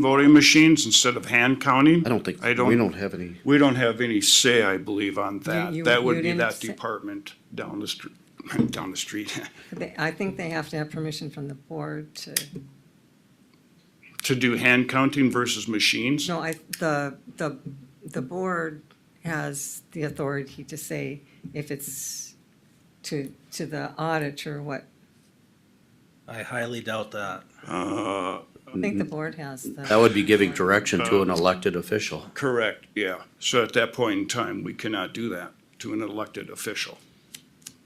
voting machines instead of hand counting. I don't think, I we don't, don't have any, we don't have any say, I believe, on that. you- That would you be didn't that say- department down the street, down the street, They- I think they have to have permission from the board to, to do hand counting versus machines. no, I, the, the, the board has the authority to say if it's to, to the auditor, what, I highly doubt that. Uh, I think the board has the. Mm-hmm. that would be giving direction to an elected official. correct, yeah. So at that point in time, we cannot do that to an elected official.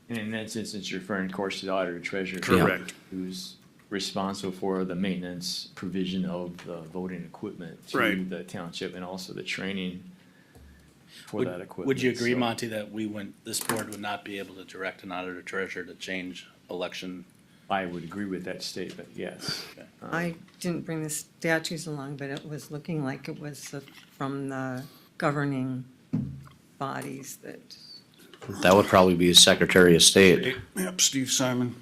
And in that instance, you're referring, of course, to the auditor treasurer. Correct. Who's responsible for the maintenance provision of the voting equipment to Right. the township and also the training for Would- that equipment. Would you agree, So- Monty, that we wouldn't, this board would not be able to direct an auditor treasurer to change election? I would agree with that statement, yes. I didn't bring the statues along, but it was looking like it was the- from the governing bodies that, That would probably be Secretary of State. Yep, Steve Simon.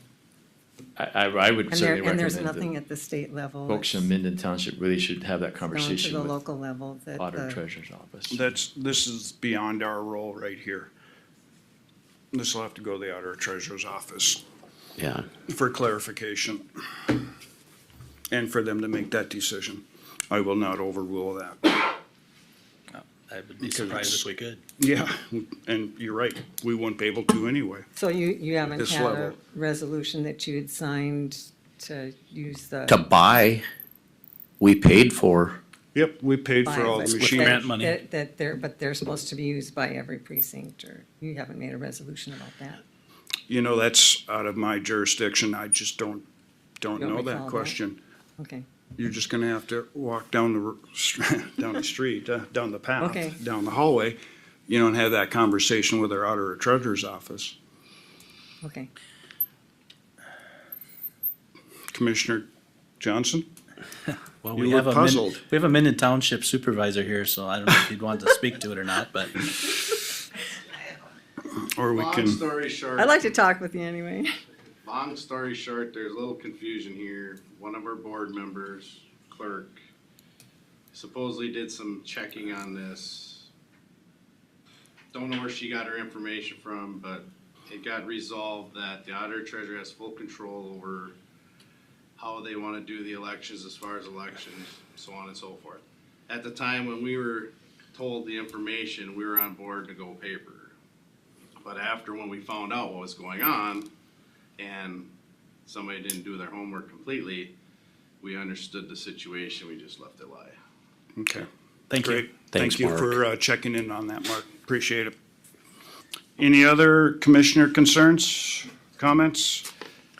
I, I, I would and there, certainly and there's recommend nothing that at the state level. folks in it's Minden Township really should have down that To the conversation with local uh, level that auditor the- treasurer's office. That's, this is beyond our role right here. This will have to go to the auditor treasurer's office Yeah, for clarification and for them to make that decision. I will not overrule that. I would be Because surprised it's- if we could. Yeah, and you're right, we wouldn't be able to anyway. So you, you haven't this had a level. resolution that you had signed to use the. to buy, we paid for, Yep, we paid for all But the that- machines. grant money. That, that they're, but they're supposed to be used by every precinct, or you haven't made a resolution about that. You know, that's out of my jurisdiction, I just don't, don't Don't know recall that that? question. Okay, You're just gonna have to walk down the, r- down the street, uh, down the Okay. path, down the hallway, you know, and have that conversation with our auditor treasurer's office. okay. Commissioner Johnson? Well, You we look have a, Min- puzzled. we have a Minden Township supervisor here, so I don't know if he'd want to speak to it or not, but Or we Long can, story short, I'd like to talk with you anyway. long story short, there's a little confusion here. One of our board members, clerk, supposedly did some checking on this. Don't know where she got her information from, but it got resolved that the auditor treasurer has full control over how they want to do the elections as far as elections, so on and so forth. At the time when we were told the information, we were on board to go paper. But after when we found out what was going on and somebody didn't do their homework completely, we understood the situation, we just left it lie. okay. thank you. Great. Thank Thanks, you Mark. for uh, checking in on that, Mark. Appreciate it. Any other commissioner concerns, comments?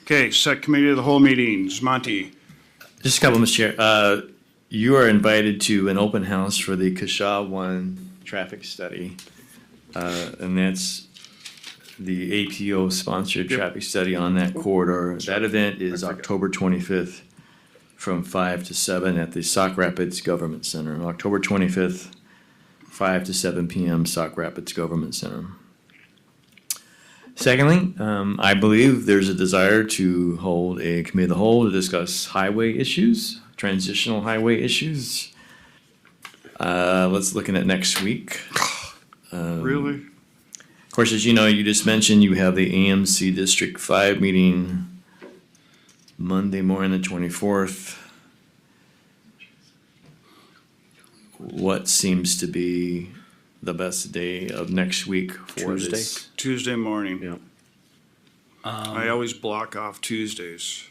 Okay, set committee of the whole meetings. Monty, Just a couple, Mr. Chair. Uh, You are invited to an open house for the Kasha One traffic study. Uh, And that's the APO sponsored traffic study on that corridor. That event is October twenty-fifth from five to seven at the Sauk Rapids Government Center. October twenty-fifth, five to seven PM, Sauk Rapids Government Center. Secondly, um, I believe there's a desire to hold a committee of the whole to discuss highway issues, transitional highway issues. Uh, let's looking at next week. really? Of course, as you know, you just mentioned you have the AMC District Five meeting Monday morning, the twenty-fourth. What seems to be the best day of next week for this? Tuesday morning. Yeah. I always block off Tuesdays.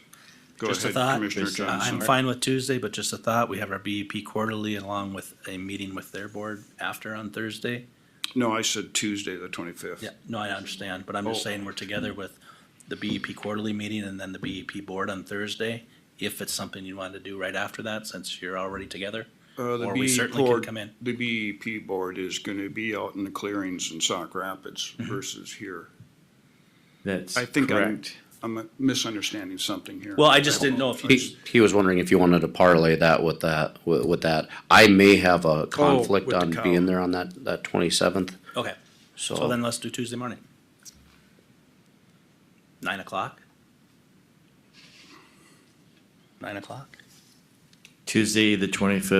Go Um, Just a ahead, thought, Commissioner Uh, I'm Johnson. fine with Tuesday, but just a thought, we have our BEP quarterly along with a meeting with their board after on Thursday. No, I said Tuesday, the twenty-fifth. Yeah, no, I understand, but I'm just Oh. saying we're together with the BEP quarterly meeting and then the BEP board on Thursday. If it's something you want to do right after that, since you're already together, Uh, the Or we BEP certainly can board- come in. The BEP board is gonna be out in the clearings in Sauk Rapids Mm-hmm. versus here. That's I think I'm- correct. I'm misunderstanding something here. Well, I just didn't know if you, He, he was wondering if you wanted to parlay that with that, with, with that. I may have a Oh, conflict with the on cow. being there on that, that twenty-seventh, okay, so so then let's do Tuesday morning. Nine o'clock? Nine o'clock? Tuesday, the twenty-fifth